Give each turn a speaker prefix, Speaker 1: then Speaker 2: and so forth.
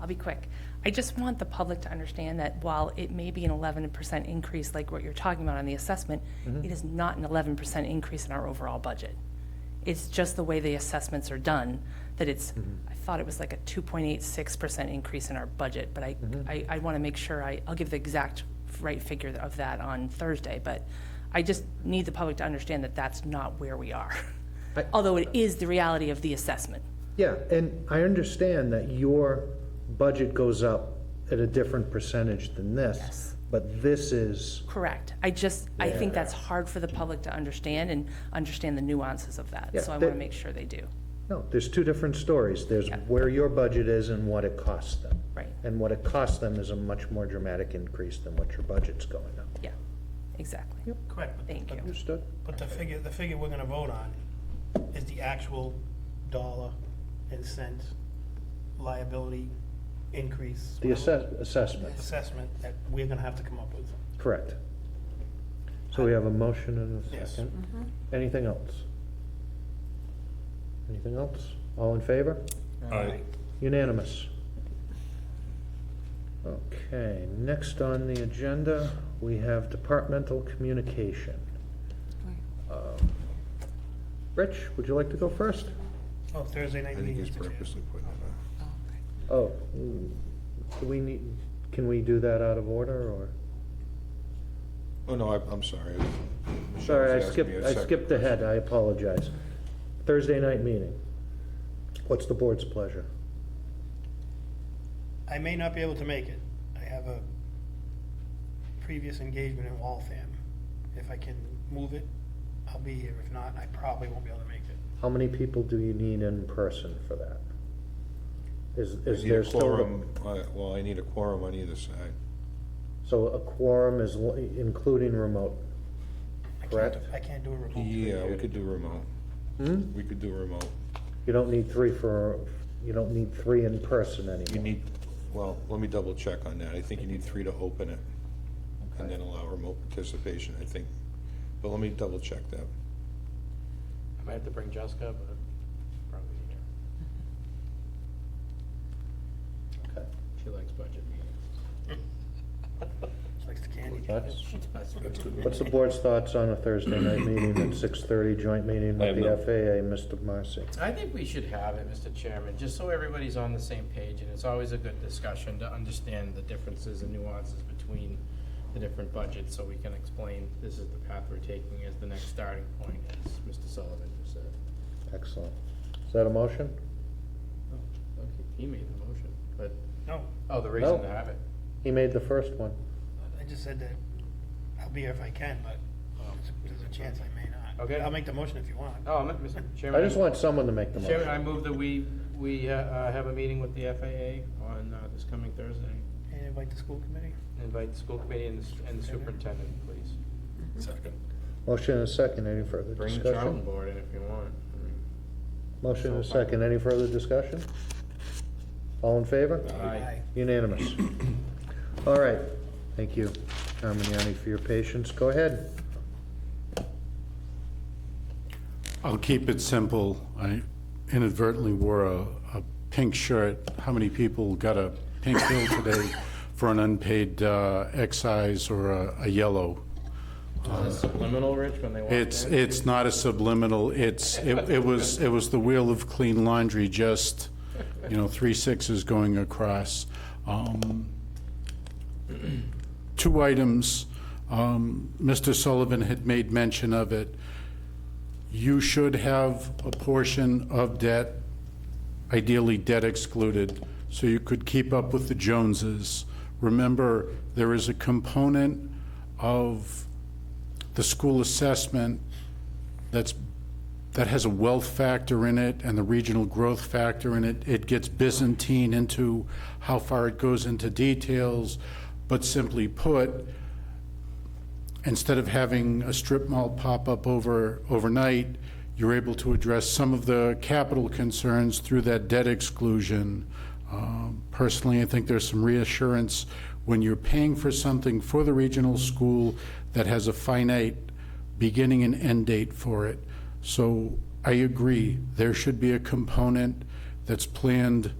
Speaker 1: I'll be quick. I just want the public to understand that while it may be an eleven percent increase, like what you're talking about on the assessment, it is not an eleven percent increase in our overall budget. It's just the way the assessments are done, that it's, I thought it was like a two point eight six percent increase in our budget, but I, I, I want to make sure I, I'll give the exact right figure of that on Thursday, but I just need the public to understand that that's not where we are.
Speaker 2: I-
Speaker 1: Although it is the reality of the assessment.
Speaker 2: Yeah, and I understand that your budget goes up at a different percentage than this.
Speaker 1: Yes.
Speaker 2: But this is,
Speaker 1: Correct. I just, I think
Speaker 2: Yeah.
Speaker 1: that's hard for the public to understand and understand the nuances of that.
Speaker 2: Yeah,
Speaker 1: So I
Speaker 2: that-
Speaker 1: want to make sure they do.
Speaker 2: no, there's two different stories. There's
Speaker 1: Yeah.
Speaker 2: where your budget is and what it costs them.
Speaker 1: Right.
Speaker 2: And what it costs them is a much more dramatic increase than what your budget's going up.
Speaker 1: Yeah, exactly.
Speaker 3: Correct. but-
Speaker 1: Thank
Speaker 3: but-
Speaker 1: you.
Speaker 2: Understood?
Speaker 3: But the figure, the figure we're gonna vote on is the actual dollar and cent liability increase.
Speaker 2: The assess, assessment,
Speaker 3: Assessment that we're gonna have to come up with.
Speaker 2: correct. So we have a motion and a
Speaker 3: Yes.
Speaker 2: second. Anything else? Anything else? All in favor?
Speaker 4: Aye.
Speaker 2: Unanimous. Okay, next on the agenda, we have departmental communication. Um, Rich, would you like to go first?
Speaker 3: Oh, Thursday night
Speaker 4: I think
Speaker 3: meeting.
Speaker 4: he's
Speaker 3: Mr. Chair.
Speaker 4: purposely putting it off.
Speaker 2: Oh, mm, do we need, can we do that out of order, or?
Speaker 4: Oh, no, I- I'm sorry. Michelle
Speaker 2: Sorry, I
Speaker 4: was asking me
Speaker 2: skipped,
Speaker 4: a
Speaker 2: I
Speaker 4: second
Speaker 2: skipped ahead,
Speaker 4: question.
Speaker 2: I apologize. Thursday night meeting. What's the board's pleasure?
Speaker 3: I may not be able to make it. I have a previous engagement in Waltham. If I can move it, I'll be here. If not, I probably won't be able to make it.
Speaker 2: How many people do you need in person for that? Is, is
Speaker 4: I need a
Speaker 2: there still? a-
Speaker 4: quorum, uh, well, I need a quorum on either side.
Speaker 2: So a quorum is l- including remote?
Speaker 3: I can't-
Speaker 2: Correct.
Speaker 3: I can't do a remote.
Speaker 4: Yeah, we could do remote.
Speaker 2: Hmm?
Speaker 4: We could do remote.
Speaker 2: You don't need three for, you don't need three in person
Speaker 4: You
Speaker 2: anymore.
Speaker 4: need, well, let me double check on that. I think you need three to open it and then allow remote participation, I think. But let me double check that.
Speaker 5: I might have to bring Jessica, but probably here.
Speaker 2: Okay.
Speaker 5: She likes budget meetings.
Speaker 3: Likes the candy.
Speaker 2: That's-
Speaker 5: That's good.
Speaker 2: What's the board's thoughts on a Thursday night meeting at six-thirty joint meeting
Speaker 6: I
Speaker 2: with
Speaker 6: have
Speaker 2: the
Speaker 6: no-
Speaker 2: FAA, Mr. Marcy?
Speaker 5: I think we should have it, Mr. Chairman, just so everybody's on the same page, and it's always a good discussion to understand the differences and nuances between the different budgets, so we can explain this is the path we're taking as the next starting point, as Mr. Sullivan just said.
Speaker 2: Excellent. Is that a motion?
Speaker 5: Oh, Okay, he made the motion, but,
Speaker 3: No,
Speaker 5: oh, the reason
Speaker 2: No.
Speaker 5: to have it.
Speaker 2: He made the first one.
Speaker 3: I just said that I'll be here if I can, but there's a- there's a chance I may not.
Speaker 5: Oh. Okay.
Speaker 3: I'll make the motion if you want.
Speaker 5: Oh, Mr.
Speaker 2: I
Speaker 5: Chairman.
Speaker 2: just want someone to make the
Speaker 5: Chairman, I
Speaker 2: motion.
Speaker 5: move that we, we uh, uh, have a meeting with the FAA on uh, this coming Thursday.
Speaker 3: And invite the school committee?
Speaker 5: Invite the school committee and the s- and the superintendent, please.
Speaker 2: Motion and a second, any further
Speaker 5: Bring the charting
Speaker 2: discussion?
Speaker 5: board in if you want. I mean,
Speaker 2: Motion and a second, any further discussion? All in favor?
Speaker 5: Aye.
Speaker 2: Unanimous. All right, thank you, Carmignani, for your patience. Go ahead.
Speaker 7: I'll keep it simple. I inadvertently wore a, a pink shirt. How many people got a pink bill today for an unpaid uh, excise or a, a yellow?
Speaker 5: Subliminal, Rich, when they walk in.
Speaker 7: It's, it's not a subliminal, it's, it it was, it was the wheel of clean laundry, just, you know, three sixes going across. Um, Two items, um, Mr. Sullivan had made mention of it. You should have a portion of debt, ideally debt excluded, so you could keep up with the Joneses. Remember, there is a component of the school assessment that's, that has a wealth factor in it and the regional growth factor in it. It gets Byzantine into how far it goes into details, but simply put, instead of having a strip mall pop up over, overnight, you're able to address some of the capital concerns through that debt exclusion. Um, Personally, I think there's some reassurance when you're paying for something for the regional school that has a finite beginning and end date for it. So I agree, there should be a component that's planned